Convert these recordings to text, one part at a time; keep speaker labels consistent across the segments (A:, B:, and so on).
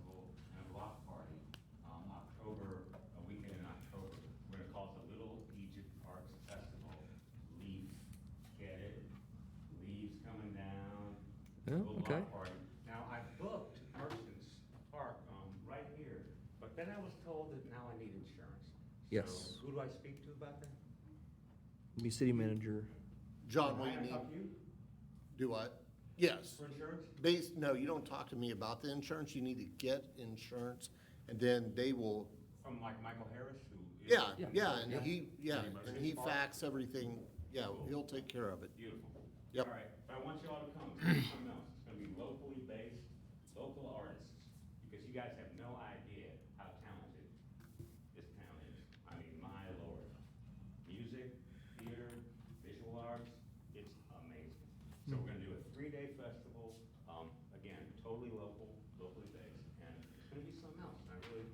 A: um,
B: Okay.
A: block party. Now, I booked Merchants Park, um, right here, but then I was told that now I need insurance.
B: Yes.
A: So who do I speak to about that?
B: Be city manager.
C: John, what
A: I
C: do you
A: can
C: need?
A: talk to you
C: Do what? Yes.
A: for insurance?
C: Base, no, you don't talk to me about the insurance. You need to get insurance and then they will,
A: From like Michael Harris, who is.
C: yeah,
B: Yeah.
C: yeah, and
B: Yeah.
C: he, yeah,
A: Pretty much.
C: and he fax everything. Yeah, he'll take care of it.
A: Beautiful.
C: Yep.
A: All right, but I want you all to come, something else, it's gonna be locally based, local artists, because you guys have no idea how talented this town is. I mean, my lord, music, theater, visual arts, it's amazing. So we're gonna do a three-day festival, um, again, totally local, locally based, and it's gonna be something else, and I really,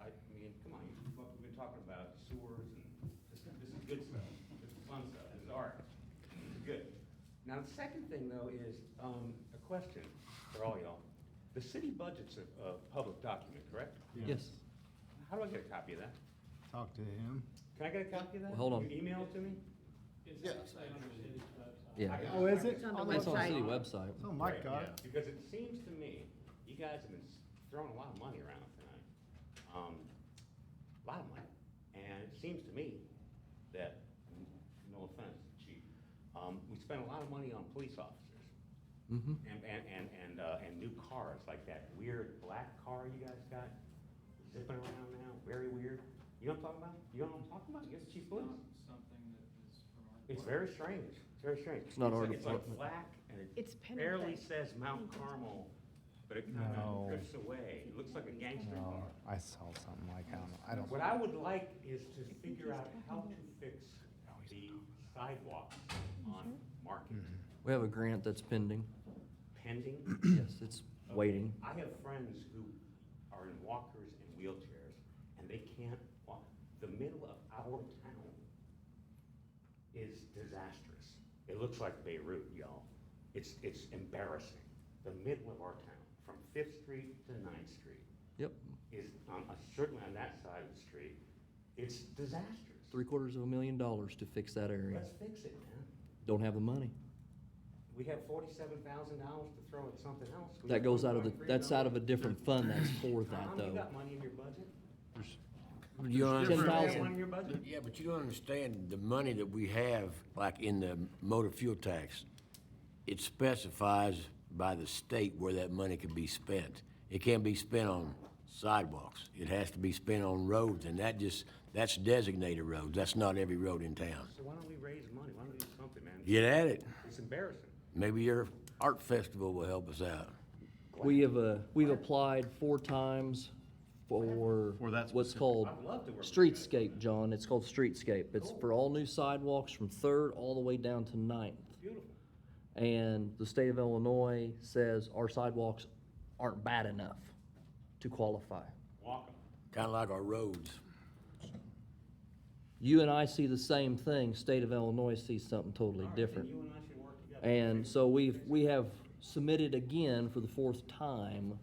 A: I mean, come on, you- what we've been talking about sewers and, this, this is good stuff, this is fun stuff, this is art. Good. Now, the second thing, though, is um, a question for all y'all. The city budget's a, a public document, correct?
B: Yes.
A: How do I get a copy of that?
D: Talk to him.
A: Can I get a copy of that?
B: Well, hold on.
A: You email it to me?
C: Yes.
B: Yeah.
A: I-
D: Oh, is it?
E: It's on the
B: It's on the
E: website.
B: city website.
D: It's on Oh my
A: Right,
D: card.
A: yeah. Because it seems to me, you guys have been s- throwing a lot of money around tonight. Um, A lot of money. And it seems to me that, n- no offense, chief, um, we spend a lot of money on police officers.
B: Mm-hmm.
A: And, and, and, and, uh, and new cars, like that weird black car you guys got zipping around now, very weird. You know what I'm talking about? You know what I'm talking about? You're the chief of police.
F: something that is from our.
A: It's very strange, it's very strange.
B: It's not our
A: like- It's
B: department.
A: like black and it
E: It's pen and
A: barely
E: thing.
A: says Mount Carmel, but it kind
D: No.
A: of drifts away. It looks like a gangster
D: No,
A: car.
D: I saw something like that. I don't.
A: What I would like is to figure
E: he's
A: out how to fix the sidewalks on Market
B: We have a grant that's pending.
A: pending.
B: Yes, it's
A: Okay,
B: waiting.
A: I have friends who are in walkers and wheelchairs, and they can't walk. The middle of our town is disastrous. It looks like Beirut, y'all. It's, it's embarrassing. The middle of our town, from Fifth Street to Ninth Street,
B: Yep,
A: is, on, uh, certainly on that side of the street, it's disastrous.
B: three quarters of a million dollars to fix that area.
A: Let's fix it, man.
B: Don't have the money.
A: We have forty-seven thousand dollars to throw at something else. We
B: That
A: have
B: goes out of the,
A: 1.3
B: that's out of a
A: million.
B: different fund that's for that
A: Tom, you
B: though.
A: got money in your budget?
G: You don't
A: You got
G: understand.
A: money in your budget?
G: Yeah, but you don't understand the money that we have, like in the motor fuel tax. It specifies by the state where that money can be spent. It can't be spent on sidewalks. It has to be spent on roads, and that just, that's designated roads. That's not every road in town.
A: So why don't we raise money? Why don't we do something, man?
G: Get at it.
A: It's embarrassing.
G: Maybe your art festival will help us out.
B: We have a, we've applied four times for
H: For that
B: what's
H: specific-
B: called
A: I'd love to work with you guys.
B: streetscape, John. It's called streetscape.
A: Oh.
B: It's for all new sidewalks from Third all the way down to Ninth.
A: Beautiful.
B: and the state of Illinois says our sidewalks aren't bad enough to qualify.
A: Walk 'em.
G: Kinda like our roads.
B: You and I see the same thing, state of Illinois sees something totally
A: All right, then
B: different.
A: you and I should work together.
B: And so we've, we have submitted again for the fourth time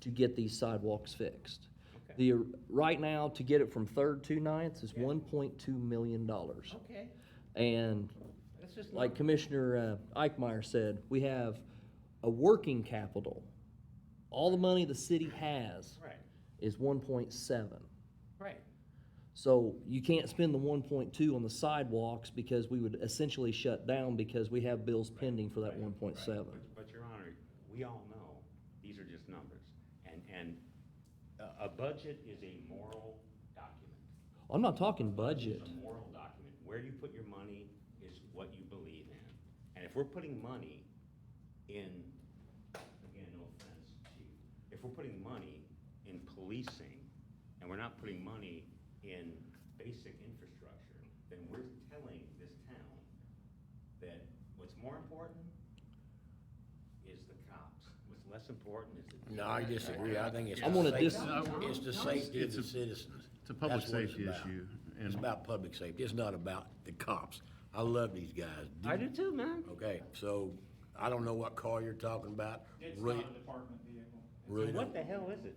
B: to get these sidewalks fixed. The, right now, to get it from Third to Ninth is one point two million dollars.
A: Okay,
B: And
A: that's just.
B: like Commissioner uh, Eichmeyer said, we have a working capital. All the money the city has
A: Right,
B: is one point seven.
A: right.
B: So you can't spend the one point two on the sidewalks because we would essentially shut down because we have bills pending for that
A: Right,
B: one point
A: right.
B: seven.
A: But- But, Your Honor, we all know, these are just numbers. And, and a, a budget is a moral document.
B: I'm not talking budget.
A: It's a moral document. Where you put your money is what you believe in. And if we're putting money in, again, no offense, chief, if we're putting money in policing and we're not putting money in basic infrastructure, then we're telling this town that what's more important is the cops. What's less important is the.
G: No, I disagree. I think it's.
B: I'm gonna
G: the
B: dis-
G: safety- It's the safety of
H: It's
G: the
H: a-
G: citizens.
H: It's a public
G: That's what it's
H: safety
G: about.
H: issue.
G: It's
H: and-
G: about public safety. It's not about the cops. I love these guys.
A: I do too, man.
G: Okay, so I don't know what car you're talking about.
F: It's
G: Really-
F: not a department vehicle.
G: really
A: What
G: don't-
A: the hell is it?